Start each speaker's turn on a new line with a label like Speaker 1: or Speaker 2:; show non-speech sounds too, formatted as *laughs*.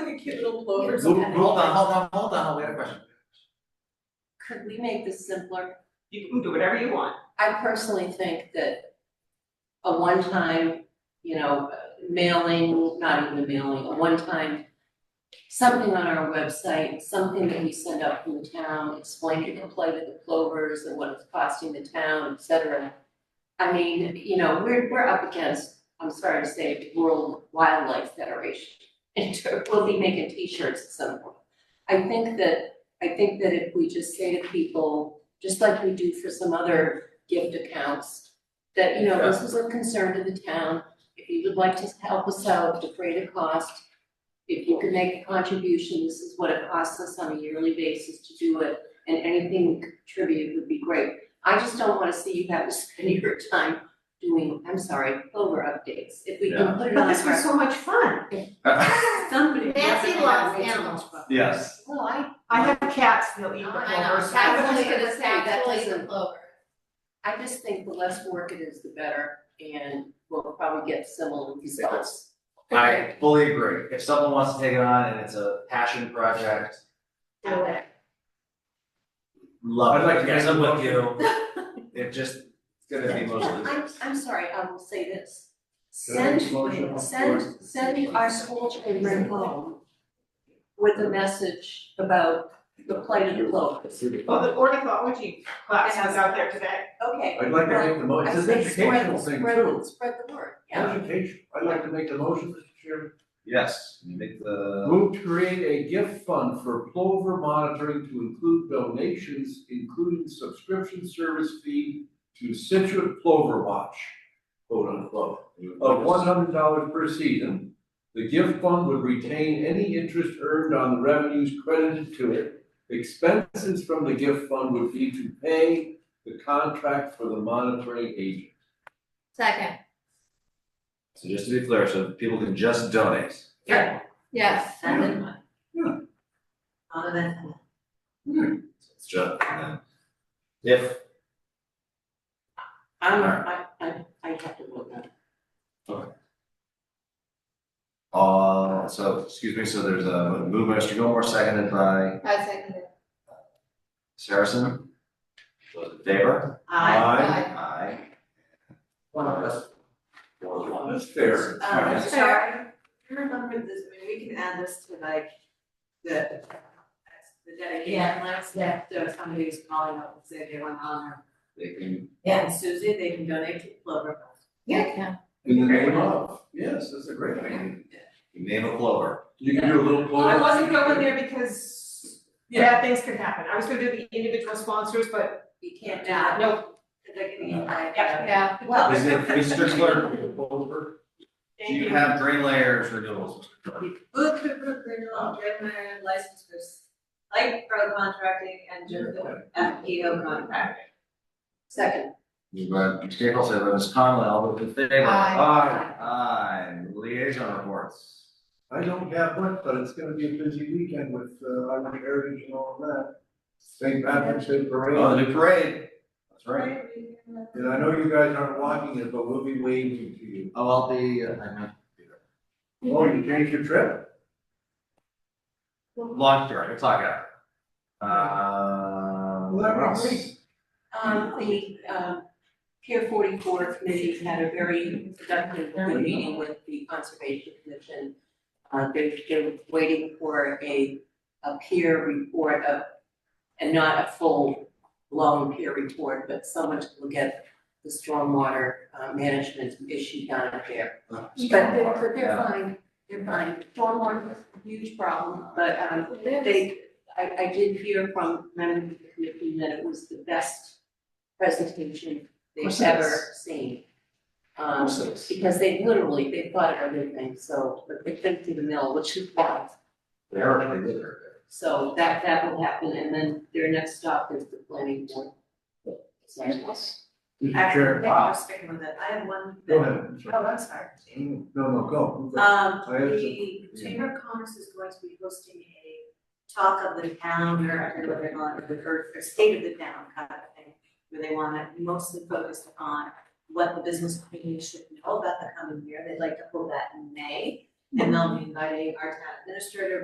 Speaker 1: cute little plovers.
Speaker 2: Hold on, hold on, hold on, we have a question.
Speaker 1: Could we make this simpler?
Speaker 3: You can do whatever you want.
Speaker 1: I personally think that a one-time, you know, mailing, not even a mailing, a one-time, something on our website, something that we send out from the town, explaining the plight of the plovers and what it's costing the town, et cetera. I mean, you know, we're, we're up against, I'm sorry to say, World Wildlife Federation. *laughs* And we'll be making t-shirts at some point. I think that, I think that if we just say to people, just like we do for some other gift accounts. That, you know, this is a concern to the town, if you would like to help us out, defray the cost. If you can make a contribution, this is what it costs us on a yearly basis to do it, and anything we contribute would be great. I just don't wanna see you have to spend *laughs* your time doing, I'm sorry, over updates, if we
Speaker 2: Yeah.
Speaker 1: can put it
Speaker 3: But
Speaker 1: on
Speaker 3: this was
Speaker 1: our,
Speaker 3: so much fun.
Speaker 1: somebody.
Speaker 4: Nancy loves animals.
Speaker 2: *laughs* Yes.
Speaker 1: Well, I,
Speaker 3: I have cats, they'll eat the
Speaker 4: I know,
Speaker 3: clovers.
Speaker 1: I
Speaker 4: that's
Speaker 1: was
Speaker 4: like
Speaker 1: gonna
Speaker 4: a
Speaker 1: say, that
Speaker 4: actually
Speaker 1: doesn't-
Speaker 4: the clover.
Speaker 1: I just think the less work it is, the better, and we'll probably get similar results.
Speaker 2: I fully agree, if someone wants to take it on and it's a passion project,
Speaker 4: Okay.
Speaker 2: love it.
Speaker 5: I'd like to get some with you.
Speaker 2: *laughs* It just, it's gonna be mostly.
Speaker 1: I'm, I'm sorry, I will say this. Send,
Speaker 5: motion?
Speaker 1: send, send our school children home with a message about the plight of the globe.
Speaker 3: Well, the ornithology class was out there today.
Speaker 1: Okay.
Speaker 5: I'd like to make the motion,
Speaker 1: I
Speaker 5: it's an
Speaker 1: say spread-
Speaker 5: educational thing
Speaker 1: spread-
Speaker 5: too.
Speaker 1: Spread the word, yeah.
Speaker 5: Education, I'd like to make the motion, Mr. Chairman.
Speaker 2: Yes, you make the,
Speaker 5: Move to create a gift fund for plover monitoring to include donations, including subscription service fee to Situate Plover Watch, quote unquote,
Speaker 2: Oh,
Speaker 5: of one hundred dollars per season. The gift fund would retain any interest earned on the revenues credited to it. Expenses from the gift fund would be to pay the contract for the monitoring agent.
Speaker 4: Second,
Speaker 2: so just to be clear, so people can just donate.
Speaker 3: Yeah.
Speaker 4: yes.
Speaker 1: Send it on.
Speaker 2: Yeah.
Speaker 1: On that.
Speaker 2: So It's just, and then if,
Speaker 1: I'm,
Speaker 2: Alright.
Speaker 1: I, I, I have to vote no.
Speaker 2: uh, so, excuse me, so there's a move, by Mr. Gilmore, seconded by
Speaker 4: I second it.
Speaker 2: Saracen. Those in favor?
Speaker 1: I,
Speaker 2: Aye.
Speaker 5: One of us. That's fair.
Speaker 6: Um,
Speaker 3: Uh,
Speaker 2: Yes.
Speaker 6: so I remember this, I mean, we can add this to like the, the dedication list.
Speaker 4: yeah.
Speaker 6: So if somebody who's calling up and say they want honor,
Speaker 2: They can,
Speaker 6: and Susie, they can donate to Clover.
Speaker 4: Yeah.
Speaker 5: In the name of, yes, that's a great idea.
Speaker 2: you name a clover.
Speaker 5: You can do a little
Speaker 3: Well, I
Speaker 5: poll.
Speaker 3: wasn't going there because bad things could happen. I was gonna do the individual sponsors, but
Speaker 6: You can't
Speaker 3: nah,
Speaker 6: not,
Speaker 3: no.
Speaker 6: like, you know, like,
Speaker 3: Yeah.
Speaker 4: Yeah.
Speaker 6: well,
Speaker 2: Is it, Mr. Clerk, do you have green layers renewals?
Speaker 6: booth for group renewal, driver license for s- light pro contracting and general F P O contracting.
Speaker 1: second,
Speaker 2: Moved by Ms. Capel, seconded by Ms. Conley, all those in favor?
Speaker 4: Aye.
Speaker 5: Aye.
Speaker 2: Aye, liaison reports.
Speaker 5: I don't have one, but it's gonna be a busy weekend with, uh, Irish Heritage and all of that. St. Patrick's Day
Speaker 2: Oh,
Speaker 5: Parade,
Speaker 2: the new parade. That's right.
Speaker 5: and I know you guys aren't watching it, but we'll be waving to you.
Speaker 2: Oh, I'll be, uh, I meant,
Speaker 5: Oh, you changed your trip?
Speaker 2: long story, we'll talk after. Uh,
Speaker 5: Well, that'd be
Speaker 2: what else?
Speaker 5: great.
Speaker 1: um, the, um, Pier forty-four committee had a very productive good meeting with the conservation commission. Uh, they, they were waiting for a, a peer report of, and not a full blown peer report, but someone to look at the stormwater, uh, management issue down there.
Speaker 2: Oh,
Speaker 1: But they're,
Speaker 2: stormwater,
Speaker 1: but they're
Speaker 2: yeah.
Speaker 1: fine, they're fine, stormwater is a huge problem, but, um, they, I, I did hear from members of the committee that it was the best presentation
Speaker 2: course
Speaker 1: they've
Speaker 2: it
Speaker 1: ever
Speaker 2: is.
Speaker 1: seen.
Speaker 2: Of
Speaker 1: Um,
Speaker 2: course it is.
Speaker 1: because they literally, they thought of everything, so, but they couldn't do the mill, which is bad.
Speaker 2: They're already there.
Speaker 1: So that, that will happen, and then their next stop is the planning board. So-
Speaker 6: Actually, thank you
Speaker 2: Wow.
Speaker 6: for sticking with it. I have one.
Speaker 5: Go ahead.
Speaker 6: Oh, I'm sorry.
Speaker 5: No, no, go. go.
Speaker 6: Um,
Speaker 5: I have
Speaker 6: the
Speaker 5: some-
Speaker 6: Chamber of Commerce is going to be hosting a talk of the town, or I don't know what they call it, or, or state of the town kind of thing, where they want to mostly focus on what the business community should know about the coming year. They'd like to hold that in May, and they'll be inviting our town administrator,